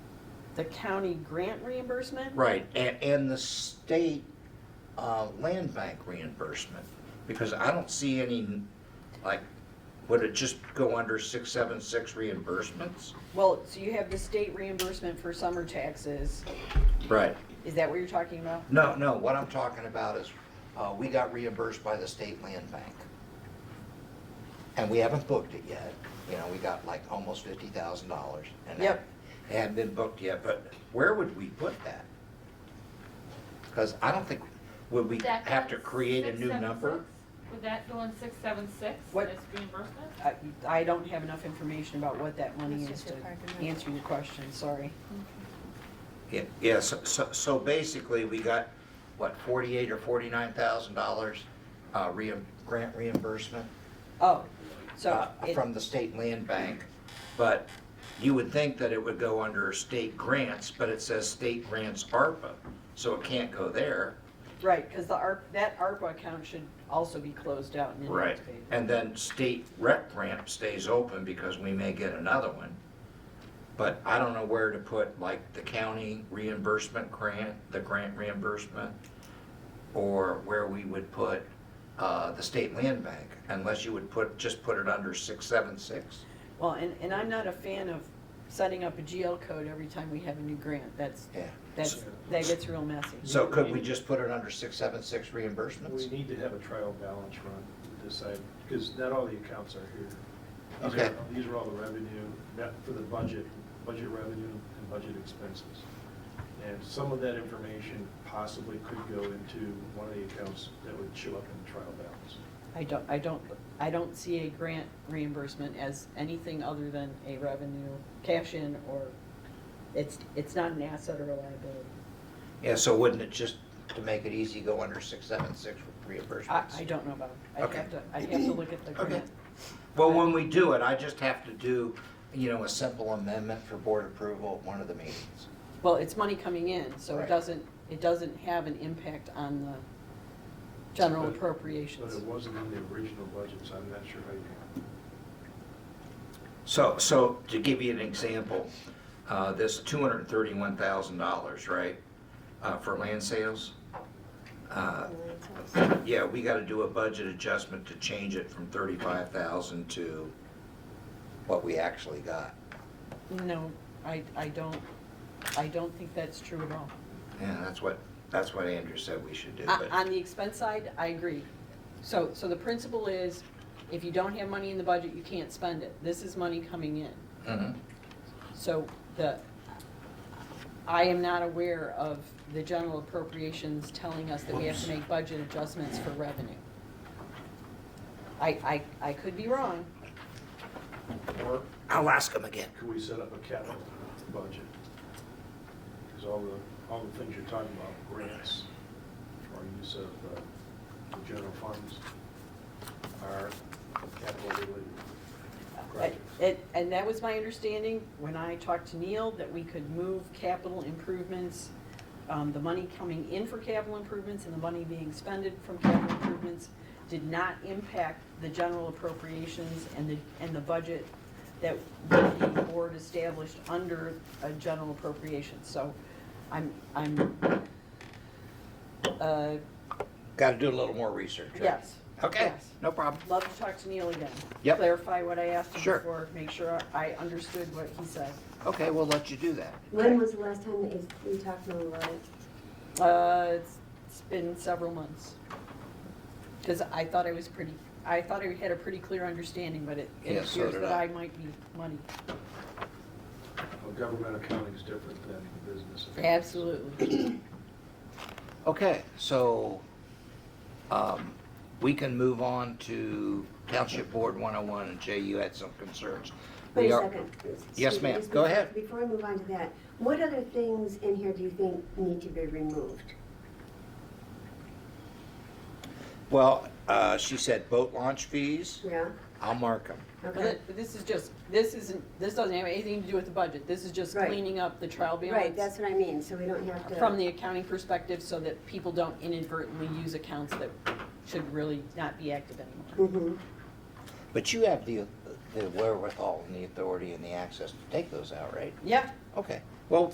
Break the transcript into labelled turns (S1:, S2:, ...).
S1: the county grant reimbursement?
S2: Right, and, and the state, uh, land bank reimbursement, because I don't see any, like, would it just go under six, seven, six reimbursements?
S1: Well, so you have the state reimbursement for summer taxes.
S2: Right.
S1: Is that what you're talking about?
S2: No, no, what I'm talking about is, uh, we got reimbursed by the state land bank. And we haven't booked it yet, you know, we got like almost fifty thousand dollars.
S1: Yep.
S2: It hadn't been booked yet, but where would we put that? Cause I don't think, would we
S3: That
S2: have to
S3: goes
S2: create a new
S3: 676?
S2: number?
S3: Would that go in six seven six
S1: What?
S3: as reimbursement?
S1: I, I don't have enough information about what that money
S4: That's
S1: is
S4: just
S1: to
S4: your park and rec.
S1: answer your question, sorry.
S2: Yeah, yeah, so, so, so basically, we got, what, forty-eight or forty-nine thousand dollars, uh, reim, grant reimbursement?
S1: Oh, so
S2: uh,
S1: it,
S2: from the state land bank, but you would think that it would go under state grants, but it says state grants ARPA, so it can't go there.
S1: right, because the ARP, that ARPA account should also be closed out and inactivated.
S2: And then state rec grant stays open because we may get another one. But I don't know where to put like the county reimbursement grant, the grant reimbursement, or where we would put uh, the state land bank, unless you would put, just put it under 676.
S1: Well, and, and I'm not a fan of setting up a GL code every time we have a new grant. That's,
S2: Yeah.
S1: that's, that gets real messy.
S2: So could we just put it under six seven six
S5: We
S2: reimbursements?
S5: need to have a trial balance run to decide, because not all the accounts are here. These
S2: Okay.
S5: are- These are all the revenue, net for the budget, budget revenue and budget expenses. And some of that information possibly could go into one of the accounts that would show up in the trial balance.
S1: I don't, I don't, I don't see a grant reimbursement as anything other than a revenue cash-in or, it's, it's not an asset or a liability.
S2: Yeah, so wouldn't it just, to make it easy, go under six seven six
S1: I,
S2: reimbursements?
S1: I don't know about, I would
S2: Okay.
S1: have to, I have to look at the
S2: Okay.
S1: grant.
S2: Well, when we do it, I just have to do, you know, a simple amendment for board approval at one of the meetings.
S1: Well, it's money coming in, so it
S2: Right.
S1: doesn't, it doesn't have an impact on the general
S5: But- But
S1: appropriations.
S5: it wasn't in the original budget, so I'm not sure how you.
S2: So, so to give you an example, uh, this two hundred and thirty-one thousand dollars, right, uh, for land sales? Uh, Yeah, we gotta do a budget adjustment to change it from thirty-five thousand to what we actually got.
S1: No, I, I don't, I don't think that's true at all.
S2: Yeah, that's what, that's what Andrew said we should do,
S1: On
S2: but,
S1: Uh, on the expense side, I agree. So, so the principle is, if you don't have money in the budget, you can't spend it. This is money coming in.
S2: Mhm.
S1: So the, I am not aware of the general appropriations telling us that we have to make budget adjustments for revenue. I, I, I could be wrong.
S5: handle it. Or
S2: I'll ask him again.
S5: could we set up a capital budget? Because all the, all the things you're talking about, grants, or use of uh, the general funds, are capital related projects.
S1: Uh, It, and that was my understanding when I talked to Neil, that we could move capital improvements, um, the money coming in for capital improvements and the money being expended from capital improvements did not impact the general appropriations and the, and the budget that the board established under a general appropriation. So I'm, I'm, uh,
S2: Gotta do a little more research. right?
S1: yes.
S2: Okay,
S1: yes.
S2: no problem.
S1: Love to talk to Neil again.
S2: Yep.
S1: Clarify what I asked him
S2: Sure.
S1: before, make sure I understood what he said.
S2: Okay, we'll let you do that.
S6: When was the last time that you, you talked to him about it?
S1: Uh, it's, it's been several months. Cause I thought I was pretty, I thought I had a pretty clear understanding, but it it
S2: Yeah, so
S1: appears
S2: did
S1: that
S2: I.
S1: I might be money.
S5: Well, Government accounting is different than business. accounting.
S1: Absolutely.
S2: Okay, so, um, we can move on to Township Board 101, and Jay, you had some concerns.
S6: Wait
S2: We
S6: a
S2: are-
S6: second.
S2: Yes,
S6: Excuse me,
S2: ma'am.
S6: just
S2: Go
S6: bef-
S2: ahead.
S6: Before I move on to that, what other things in here do you think need to be removed?
S2: Well, uh, she said boat launch fees,
S6: Yeah,
S2: I'll mark them.
S1: But
S6: okay.
S1: that- but this is just, this isn't, this doesn't have anything to do with the budget, this is just
S6: Right.
S1: cleaning up the trial
S6: Right,
S1: balance
S6: that's what I mean, so we don't have to.
S1: from the accounting perspective, so that people don't inadvertently use accounts that should really not be active anymore.
S6: Mhm.
S2: But you have the, the wherewithal and the authority and the access to take those out, right?
S1: Yeah,
S2: Okay,